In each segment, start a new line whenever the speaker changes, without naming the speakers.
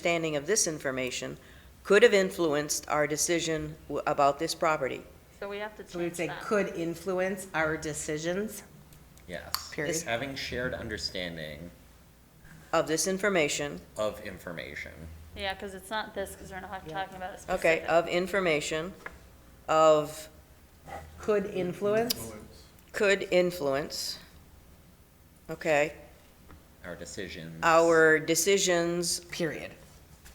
understanding of this information could have influenced our decision w- about this property.
So we have to
So we would
change
say
that.
could influence our decisions,
Yes.
Period.
Having shared understanding
Of this information,
of information.
Yeah, because it's not this, because we're not talking about it
okay, oh.
specifically.
of information, of
could influence
could influence, okay,
Our decisions.
our decisions,
period.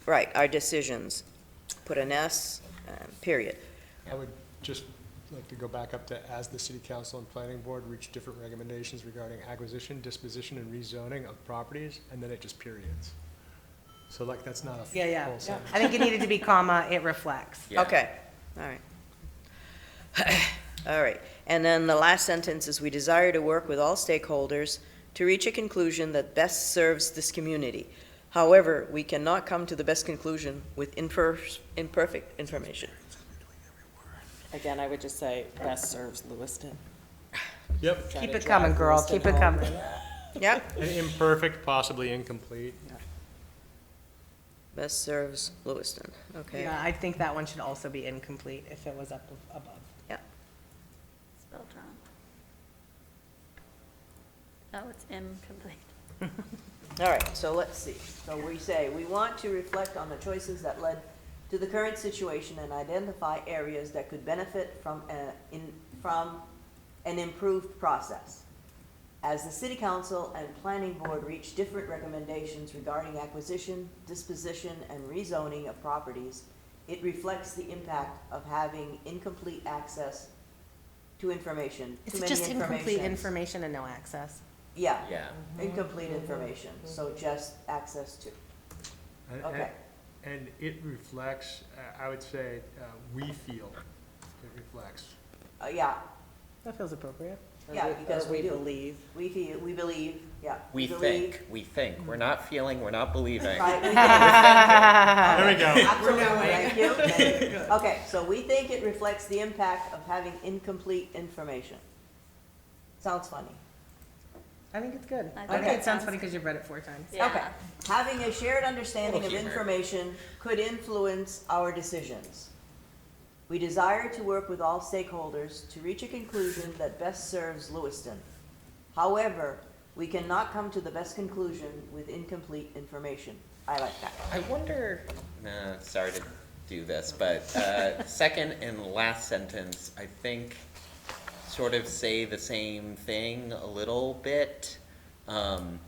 right, our decisions. Put an S, uh, period.
I would just like to go back up to, as the city council and planning board reach different recommendations regarding acquisition, disposition, and rezoning of properties, and then it just periods. So like, that's not a full
Yeah, yeah.
sentence.
I think it needed to be comma, it reflects.
Yeah.
Okay, all right. All right, and then the last sentence is, "We desire to work with all stakeholders to reach a conclusion that best serves this community. However, we cannot come to the best conclusion with imper- imperfect information."
Again, I would just say best serves Lewiston.
Yep,
Try
Keep
to
it
drive
coming, girl,
Lewiston
keep it
home.
coming.
Yeah,
and imperfect, possibly incomplete.
best serves Lewiston, okay.
Yeah, I think that one should also be incomplete if it was up above.
Spelled wrong. No, Oh, it's incomplete.
All right, so let's see. So we say, we want to reflect on the choices that led to the current situation and identify areas that could benefit from, a- in, from an improved process. As the city council and planning board reach different recommendations regarding acquisition, disposition, and rezoning of properties, it reflects the impact of having incomplete access to information, too
Is it
many
just incomplete
informations.
information and no access?
Yeah,
Yeah.
incomplete information, so just access to.
And- and-
Okay.
And it reflects, uh, I would say, uh, we feel it reflects.
Uh, yeah,
That feels appropriate.
Yeah,
Or we-
because
or
we do.
believe.
we feel, we believe, yeah.
We
believe,
think, we think. We're not feeling, we're not believing.
Right, we think.
There we go.
Absolutely, thank you, thank you. Okay, so we think it reflects the impact of having incomplete information. Sounds funny.
I think it's good.
I
I
think
it
think it sounds
sounds
funny because you've read it four times.
Okay.
Yeah.
Having a shared understanding of
Little humor.
information could influence our decisions. We desire to work with all stakeholders to reach a conclusion that best serves Lewiston. However, we cannot come to the best conclusion with incomplete information. I like that.
I wonder, nah, sorry to do this, but, uh, second and last sentence, I think, sort of say the same thing a little bit. Um,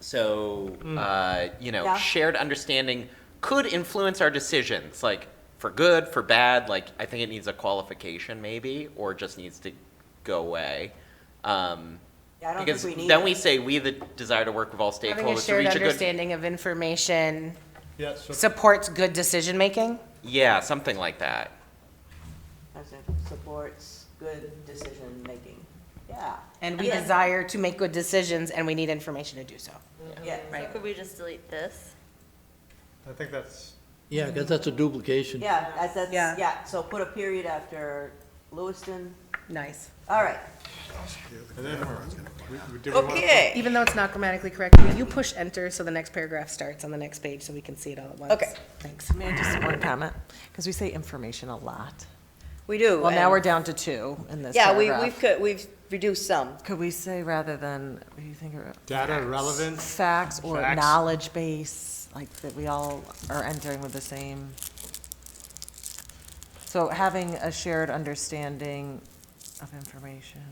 so,
Hmm.
uh, you know,
Yeah.
shared understanding could influence our decisions, like, for good, for bad, like, I think it needs a qualification maybe, or just needs to go away. Um,
Yeah, I don't
because
think we need
then
it.
we say, we the desire to work with all
Having a
stakeholders to
shared
reach a good
understanding of information
Yeah, so
supports good decision-making?
Yeah, something like that.
As it supports good decision-making. Yeah.
And we
Yeah.
desire to make good decisions and we need information to do so.
Yeah,
So could we just delete this?
I think that's,
Yeah, because that's a duplication.
yeah, that's, that's,
Yeah.
yeah, so put a period after Lewiston.
Nice.
All right.
and then, we- we- do we want?
Okay.
Even though it's not grammatically correct, will you push enter so the next paragraph starts on the next page so we can see it all at once?
Okay.
Thanks.
May I just one comment? Because we say information a lot.
We do.
Well, now
and-
we're down to two in this
Yeah, we,
paragraph.
we've, cut- we've reduced some.
Could we say rather than, what do you think of?
Data relevant.
Facts or
Facts.
knowledge base, like that we all are entering with the same. So having a shared understanding of information.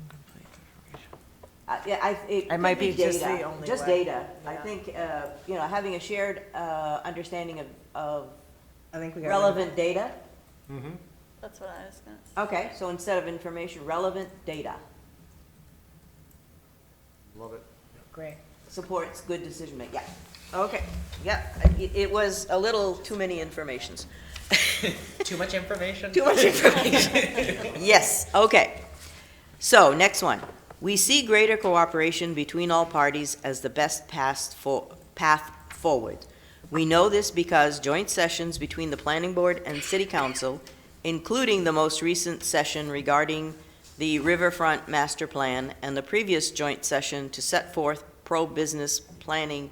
Incomplete information.
I- Uh, Yeah, I, it
I might
could be
be just the
data,
only
just
way.
data. I think, uh, you know, having a shared, uh, understanding of, of
I think we got.
relevant data.
That's what I was gonna say.
Okay, so instead of information, relevant data
Love it.
Great.
supports good decision making, yeah. Okay, yeah, it, it was a little too many informations.
Too much information?
Too much information. Yes, okay. So, next one. We see greater cooperation between all parties as the best path for, path forward. We know this because joint sessions between the planning board and city council, including the most recent session regarding the riverfront master plan and the previous joint session to set forth pro-business planning